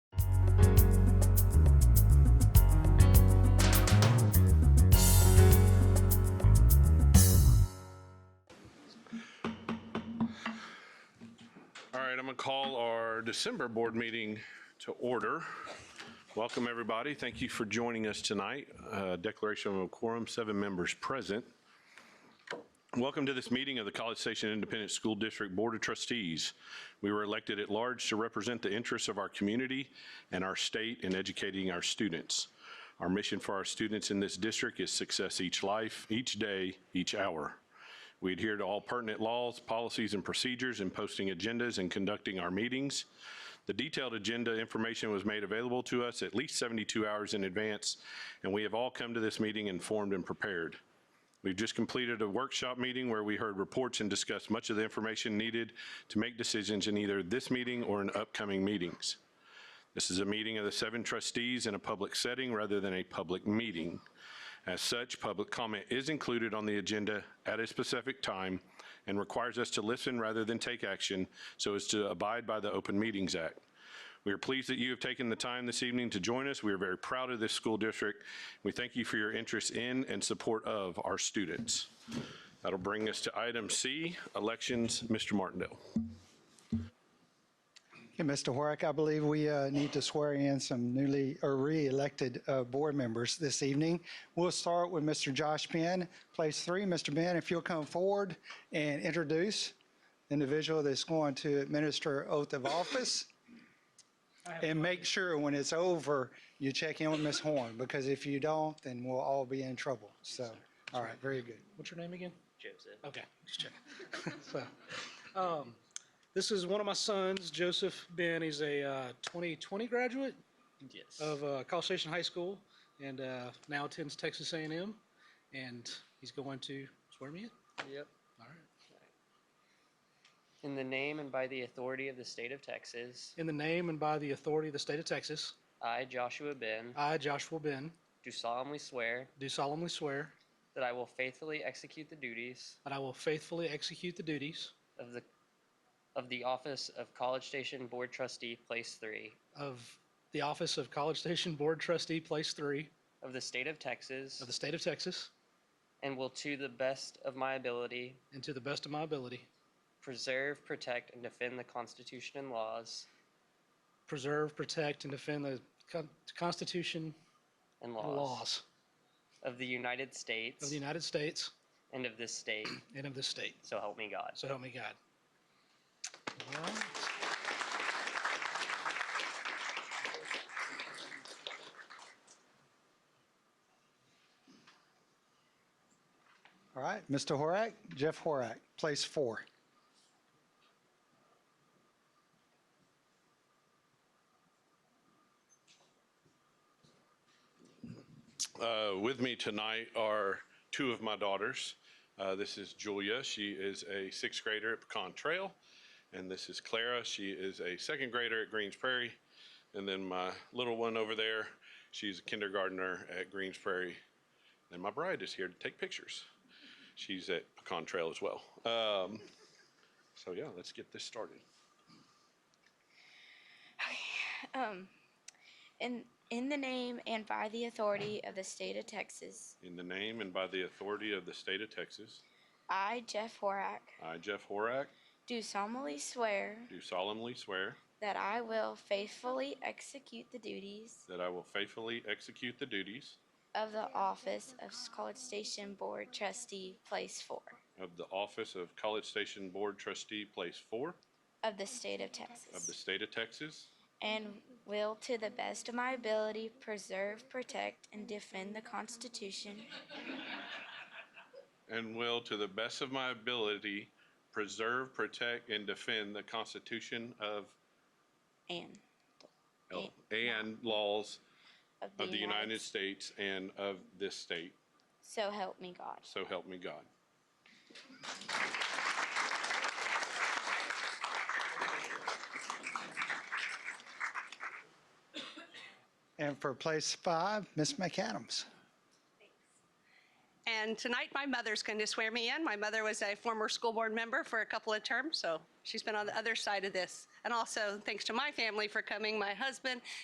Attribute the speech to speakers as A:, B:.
A: right, I'm going to call our December board meeting to order. Welcome, everybody. Thank you for joining us tonight. Uh, Declaration of a quorum, seven members present. Welcome to this meeting of the College Station Independent School District Board of Trustees. We were elected at large to represent the interests of our community and our state in educating our students. Our mission for our students in this district is success each life, each day, each hour. We adhere to all pertinent laws, policies, and procedures in posting agendas and conducting our meetings. The detailed agenda information was made available to us at least 72 hours in advance, and we have all come to this meeting informed and prepared. We've just completed a workshop meeting where we heard reports and discussed much of the information needed to make decisions in either this meeting or in upcoming meetings. This is a meeting of the seven trustees in a public setting rather than a public meeting. As such, public comment is included on the agenda at a specific time and requires us to listen rather than take action so as to abide by the Open Meetings Act. We are pleased that you have taken the time this evening to join us. We are very proud of this school district. We thank you for your interest in and support of our students. That'll bring us to item C, elections. Mr. Martindale.
B: Okay, Mr. Horak, I believe we uh, need to swear in some newly or re-elected uh, board members this evening. We'll start with Mr. Josh Penn, place three. Mr. Penn, if you'll come forward and introduce the individual that's going to administer oath of office. And make sure when it's over, you check in with Ms. Horn, because if you don't, then we'll all be in trouble. So, all right, very good.
C: What's your name again?
D: Joseph.
C: Okay, just check. um, this is one of my sons, Joseph Ben. He's a uh, 2020 graduate
D: Yes.
C: of uh, College Station High School and uh, now attends Texas A&M. And he's going to swear me in.
D: Yep.
C: All right.
D: In the name and by the authority of the state of Texas,
C: In the name and by the authority of the state of Texas,
D: I, Joshua Ben,
C: I, Joshua Ben,
D: do solemnly swear
C: do solemnly swear
D: that I will faithfully execute the duties
C: that I will faithfully execute the duties
D: of the of the office of College Station Board Trustee, Place Three,
C: of the office of College Station Board Trustee, Place 3
D: of the state of Texas,
C: of the state of Texas,
D: and will to the best of my ability
C: and to the best of my ability,
D: preserve, protect, and defend the Constitution and laws
C: preserve, protect, and defend the Con- Constitution and
D: and laws,
C: laws
D: of the United States
C: of the United States
D: and of this state.
C: and of this state.
D: So help me God.
C: So help me God. All right.
B: All right, Mr. Horak, Jeff Horak, place four.
A: Uh, With me tonight are two of my daughters. Uh, This is Julia. She is a sixth grader at Pecan Trail. And this is Clara. She is a second grader at Greens Prairie. And then my little one over there, she's a kindergartner at Greens Prairie. And my bride is here to take pictures. She's at Pecan Trail as well. Um, So yeah, let's get this started.
E: Um, in, in the name and by the authority of the state of Texas,
A: In the name and by the authority of the state of Texas,
E: I, Jeff Horak,
A: I, Jeff Horak,
E: do solemnly swear
A: do solemnly swear
E: that I will faithfully execute the duties
A: that I will faithfully execute the duties
E: of the office of College Station Board Trustee, Place Four
A: of the office of College Station Board Trustee, Place Four
E: of the state of
A: of the
E: Texas,
A: state of Texas,
E: and will, to the best of my ability, preserve, protect, and defend the Constitution
A: and will, to the best of my ability, preserve, protect, and defend the Constitution of
E: and
A: and laws
E: of
A: of the United States and of this state.
E: So help me God.
A: So help me God.
B: And for place five, Ms. McAdams.
F: And tonight, my mother's going to swear me in. My mother was a former school board member for a couple of terms, so she's been on the other side of this. And also, thanks to my family for coming, my husband